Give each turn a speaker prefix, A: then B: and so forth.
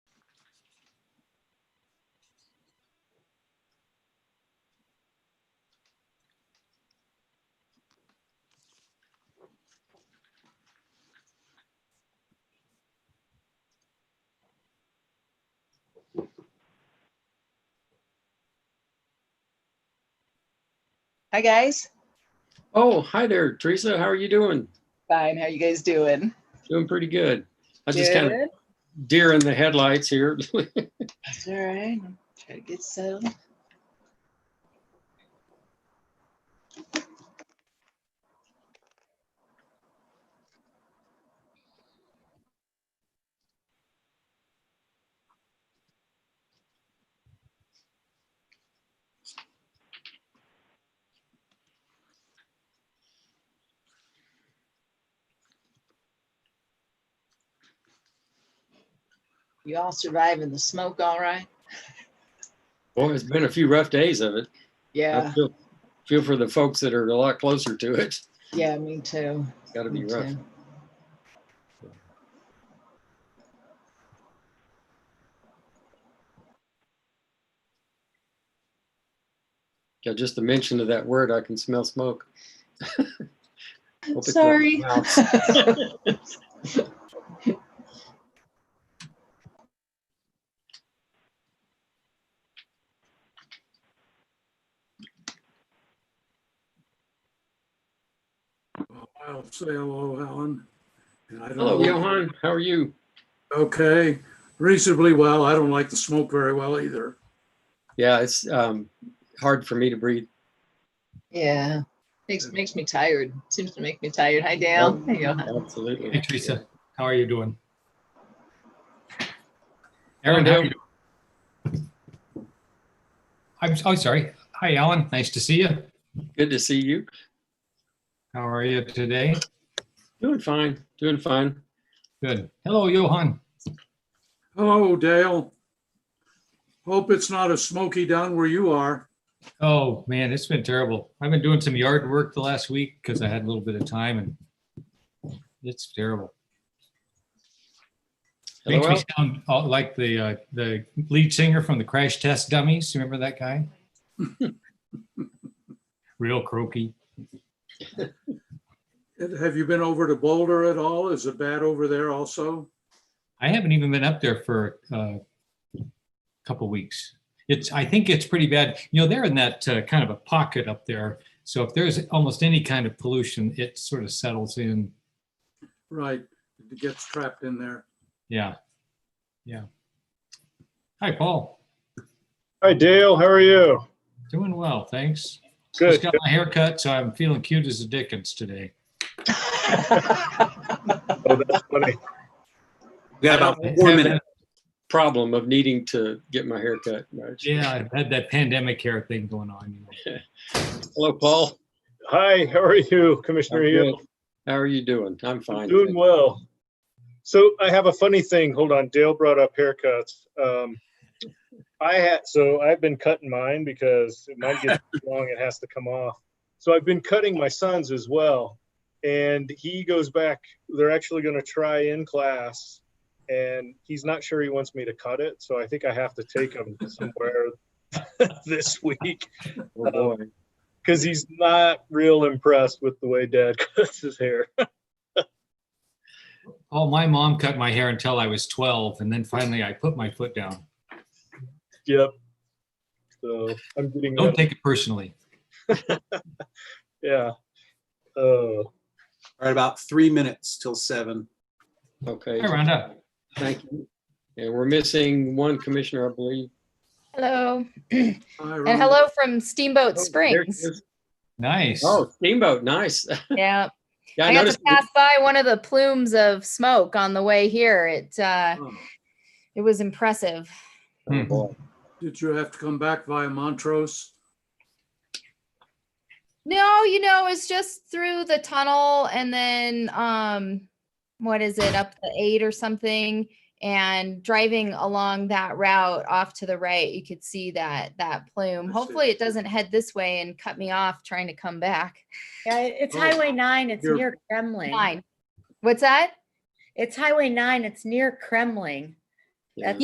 A: Hi, guys.
B: Oh, hi there, Teresa. How are you doing?
A: Fine. How you guys doing?
B: Doing pretty good. I just kind
A: Good?
B: of deer in the headlights here.
A: That's all right. I'm Try to get settled. You all surviving the smoke all right?
B: Boy, it's been a few rough days of it. I
A: Yeah.
B: feel, feel for the folks that are a lot closer to it.
A: Yeah, me too.
B: It's got to be
A: Me
B: rough.
A: too.
B: Yeah, just the mention of that word, I can smell smoke. Hope it's not
A: Sorry.
B: my mouth.
C: I'll say hello, Alan. And I don't
B: Hello,
C: know-
B: Johan. How are you?
C: Okay, reasonably well. I don't like the smoke very well either.
B: Yeah, it's um, hard for me to breathe.
A: Yeah. Makes, makes me tired. Seems to make me tired. Hi, Dale. Hey, Johan.
B: Oh, Absolutely.
D: Hey Teresa, how are you doing?
B: Aaron,
D: Aaron,
B: how
D: how
B: are you
D: I'm, oh, sorry. Hi, Alan. Nice to see you.
B: Good to see you.
D: How are you today?
B: Doing fine. Doing fine.
D: Good. Hello, Johan.
C: Hello, Dale. Hope it's not as smoky down where you are.
D: Oh, man, it's been terrible. I've been doing some yard work the last week because I had a little bit of time and it's terrible. Makes
B: Hello,
D: me
B: Al.
D: sound all- like the, uh, the lead singer from the Crash Test Dummies. Remember that guy? Real croaky.
C: Have you been over to Boulder at all? Is it bad over there also?
D: I haven't even been up there for uh, a couple weeks. It's, I think it's pretty bad. You know, they're in that uh, kind of a pocket up there. So if there's almost any kind of pollution, it sort of settles in.
C: Right, it gets trapped in there.
D: Yeah. Yeah. Hi, Paul.
E: Hi Dale, how are you?
D: Doing well, thanks. Just
E: Good.
D: got my hair cut, so I'm feeling cute as a dickens today.
E: Oh, that's funny.
F: We got about
D: Having-
F: four minutes.
B: Problem of needing to get my hair cut. Right.
D: Yeah, I've had that pandemic hair thing going on. you know.
B: Hello, Paul.
E: Hi, how are you, Commissioner
B: I'm
E: Hill?
B: good. How are you doing? I'm fine.
E: Doing well. So I have a funny thing. Hold on, Dale brought up haircuts. Um, I had, so I've been cutting mine because mine gets too long, it has to come off. So I've been cutting my son's as well. And he goes back, they're actually gonna try in class. And he's not sure he wants me to cut it, so I think I have to take him somewhere this week.
B: Oh, boy.
E: because he's not real impressed with the way dad cuts his hair.
D: Oh, my mom cut my hair until I was 12, and then finally I put my foot down.
E: Yep. So I'm getting
D: Don't
E: that-
D: take it personally.
E: yeah. Uh,
F: All right, about three minutes till seven.
B: Okay.
D: Hi, Rhonda.
B: Thank you. And we're missing one commissioner, I believe.
G: Hello,
C: Hi,
G: and
C: Rhonda.
G: hello from Steamboat
B: Oh, there it
G: Springs.
B: is.
D: Nice.
B: Oh, steamboat. Nice.
G: Yeah,
B: Yeah, I
G: I got
B: noticed.
G: to pass by one of the plumes of smoke on the way here. It, uh,
C: Oh.
G: it was impressive.
B: Oh, boy.
C: Did you have to come back via Montrose?
G: No, you know, it's just through the tunnel and then, um, what is it, up the eight or something? And driving along that route off to the right, you could see that, that plume.
C: I see.
G: Hopefully it doesn't head this way and cut me off trying to come back.
H: Yeah, it- it's
C: Oh,
H: Highway 9, it's
C: you're-
H: near Kremling.
G: Fine. What's that?
H: It's Highway 9, it's near Kremling.
B: Yeah.